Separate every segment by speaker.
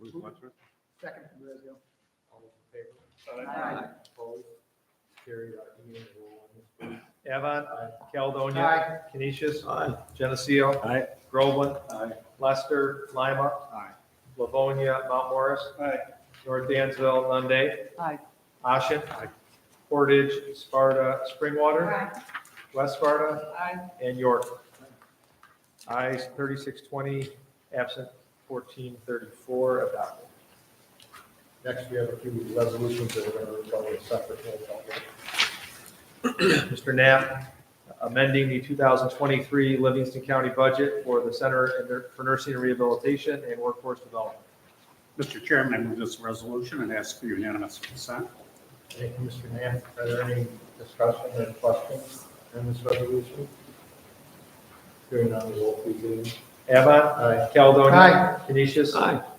Speaker 1: Move Wadsworth.
Speaker 2: Second from Brazil.
Speaker 3: All those in favor?
Speaker 2: Aye.
Speaker 3: Opposed? Carried, uh, E and roll on this, please.
Speaker 4: Avon,
Speaker 3: Aye.
Speaker 4: Caledonia, Canisius,
Speaker 1: Aye.
Speaker 4: Geneseo,
Speaker 1: Aye.
Speaker 4: Groveland,
Speaker 1: Aye.
Speaker 4: Lester, Lima,
Speaker 1: Aye.
Speaker 4: Livonia, Mount Morris,
Speaker 1: Aye.
Speaker 4: North Dansville, Nunde,
Speaker 2: Aye.
Speaker 4: Ashen, Portage, Sparta, Springwater, West Sparta,
Speaker 2: Aye.
Speaker 4: and York. Ayes thirty-six twenty, absent fourteen thirty-four, adopted.
Speaker 3: Next, we have a few resolutions that we're going to cover separate. roll call vote.
Speaker 4: Mr. Knapp, amending the 2023 Livingston County budget for the Center for Nursing and Rehabilitation and Workforce Development.
Speaker 1: Mr. Chairman, I move this resolution and ask for unanimous consent.
Speaker 3: Thank you, Mr. Knapp. Are there any discussion or questions on this resolution? Hearing none, roll please, Amy.
Speaker 4: Avon,
Speaker 3: Aye.
Speaker 4: Caledonia.
Speaker 2: Aye.
Speaker 4: Canisius.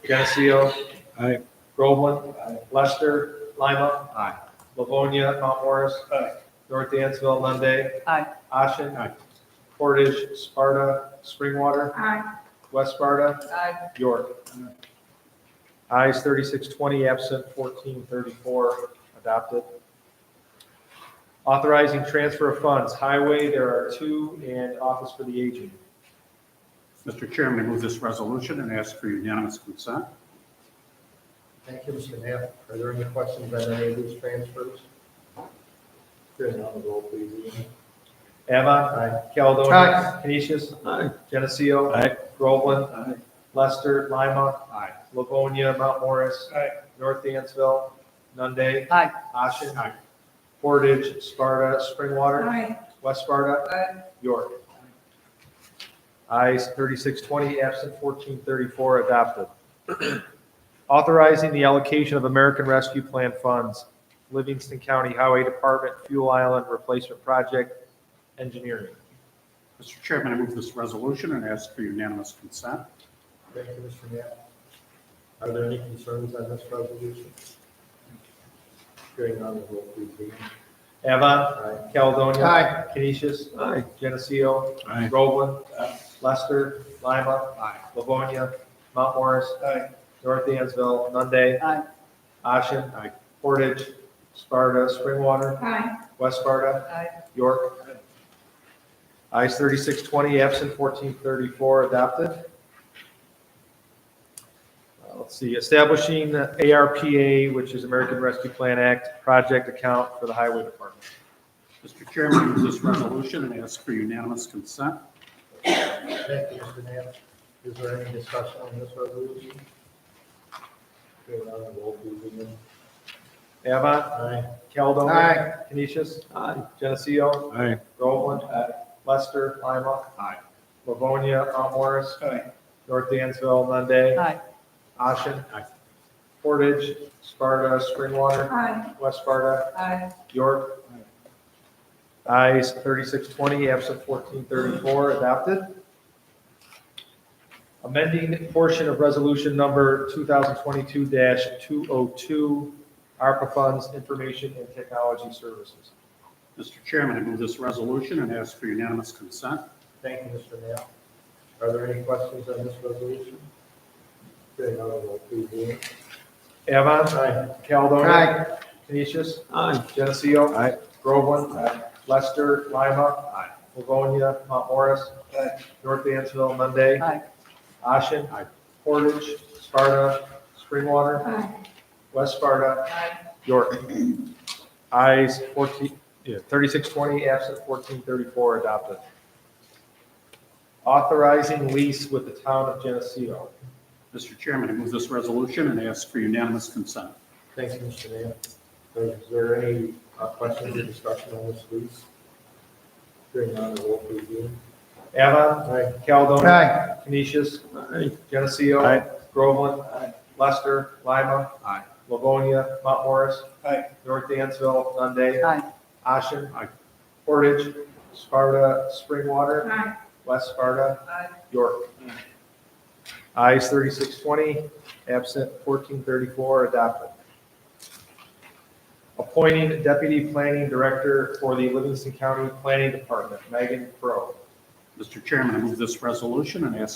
Speaker 4: Geneseo.
Speaker 1: Aye.
Speaker 4: Groveland. Lester. Lima.
Speaker 1: Aye.
Speaker 4: Livonia. Mount Morris.
Speaker 1: Aye.
Speaker 4: North Dansville. Nunde.
Speaker 2: Aye.
Speaker 4: Ashen.
Speaker 1: Aye.
Speaker 4: Portage. Sparta. Springwater.
Speaker 2: Aye.
Speaker 4: West Sparta.
Speaker 2: Aye.
Speaker 4: York. Ayes thirty-six twenty, absent fourteen thirty-four, adopted. Authorizing transfer of funds, highway, there are two, and office for the aging.
Speaker 1: Mr. Chairman, I move this resolution and ask for unanimous consent.
Speaker 3: Thank you, Mr. Knapp. Are there any questions on any of these transfers? Hearing none, roll please, Amy.
Speaker 4: Avon,
Speaker 3: Aye.
Speaker 4: Caledonia, Canisius,
Speaker 1: Aye.
Speaker 4: Geneseo.
Speaker 1: Aye.
Speaker 4: Groveland,
Speaker 1: Aye.
Speaker 4: Lester, Lima,
Speaker 1: Aye.
Speaker 4: Livonia, Mount Morris.
Speaker 1: Aye.
Speaker 4: North Dansville, Nunde.
Speaker 2: Aye.
Speaker 4: Ashen.
Speaker 1: Aye.
Speaker 4: Portage, Sparta, Springwater.
Speaker 2: Aye.
Speaker 4: West Sparta.
Speaker 2: Aye.
Speaker 4: York. Ayes thirty-six twenty, absent fourteen thirty-four, adopted. Authorizing the allocation of American Rescue Plan funds, Livingston County Highway Department Fuel Island Replacement Project Engineering.
Speaker 1: Mr. Chairman, I move this resolution and ask for unanimous consent.
Speaker 3: Thank you, Mr. Knapp. Are there any concerns on this resolution? Hearing none, roll please, Amy.
Speaker 4: Avon,
Speaker 3: Aye.
Speaker 4: Caledonia.
Speaker 2: Aye.
Speaker 4: Canisius. Geneseo.
Speaker 1: Aye.
Speaker 4: Groveland. Lester. Lima.
Speaker 1: Aye.
Speaker 4: Livonia. Mount Morris. North Dansville. Nunde.
Speaker 2: Aye.
Speaker 4: Ashen.
Speaker 1: Aye.
Speaker 4: Portage. Sparta. Springwater.
Speaker 2: Aye.
Speaker 4: West Sparta.
Speaker 2: Aye.
Speaker 4: York. Ayes thirty-six twenty, absent fourteen thirty-four, adopted. Uh, Let's see, establishing ARPA, which is American Rescue Plan Act, project account for the Highway Department.
Speaker 1: Mr. Chairman, I move this resolution and ask for unanimous consent.
Speaker 3: Thank you, Mr. Knapp. Is there any discussion on this resolution? Hearing none, roll please, Amy.
Speaker 4: Avon,
Speaker 3: Aye.
Speaker 4: Caledonia.
Speaker 2: Aye.
Speaker 4: Canisius. Geneseo.
Speaker 1: Aye.
Speaker 4: Groveland. uh, Lester. Lima.
Speaker 1: Aye.
Speaker 4: Livonia. Mount Morris.
Speaker 1: Aye.
Speaker 4: North Dansville. Nunde.
Speaker 2: Aye.
Speaker 4: Ashen.
Speaker 1: Aye.
Speaker 4: Portage. Sparta. Springwater.
Speaker 2: Aye.
Speaker 4: West Sparta.
Speaker 2: Aye.
Speaker 4: York. Ayes thirty-six twenty, absent fourteen thirty-four, adopted. Amending portion of resolution number two thousand twenty-two two oh two, ARPA funds, information and technology services.
Speaker 1: Mr. Chairman, I move this resolution and ask for unanimous consent.
Speaker 3: Thank you, Mr. Knapp. Are there any questions on this resolution? Hearing none, roll please, Amy.
Speaker 4: Avon,
Speaker 3: Aye.
Speaker 4: Caledonia. uh, Canisius. Geneseo.
Speaker 1: Aye.
Speaker 4: Groveland. Lester. Lima.
Speaker 1: Aye.
Speaker 4: Livonia. Mount Morris. North Dansville. Nunde.
Speaker 2: Aye.
Speaker 4: Ashen.
Speaker 1: Aye.
Speaker 4: Portage. Sparta. Springwater.
Speaker 2: Aye.
Speaker 4: West Sparta. York. Ayes 14, yeah, 3620, absent 1434, adopted. Authorizing lease with the town of Geneseo.
Speaker 1: Mr. Chairman, I move this resolution and ask for unanimous consent.
Speaker 3: Thank you, Mr. Knapp. Is there any uh, questions or discussion on this lease? Hearing none, roll please, Amy.
Speaker 4: Avon,
Speaker 3: Aye.
Speaker 4: Caledonia.
Speaker 2: Aye.
Speaker 4: Canisius. Geneseo.
Speaker 1: Aye.
Speaker 4: Groveland. Lester. Lima.
Speaker 1: Aye.
Speaker 4: Livonia. Mount Morris.
Speaker 1: Aye.
Speaker 4: North Dansville. Nunde.
Speaker 2: Aye.
Speaker 4: Ashen.
Speaker 1: Aye.
Speaker 4: Portage. Sparta. Springwater.
Speaker 2: Aye.
Speaker 4: West Sparta.
Speaker 2: Aye.
Speaker 4: York. Ayes thirty-six twenty, absent fourteen thirty-four, adopted. Appointing Deputy Planning Director for the Livingston County Planning Department, Megan Crowe.
Speaker 1: Mr. Chairman, I move this resolution and ask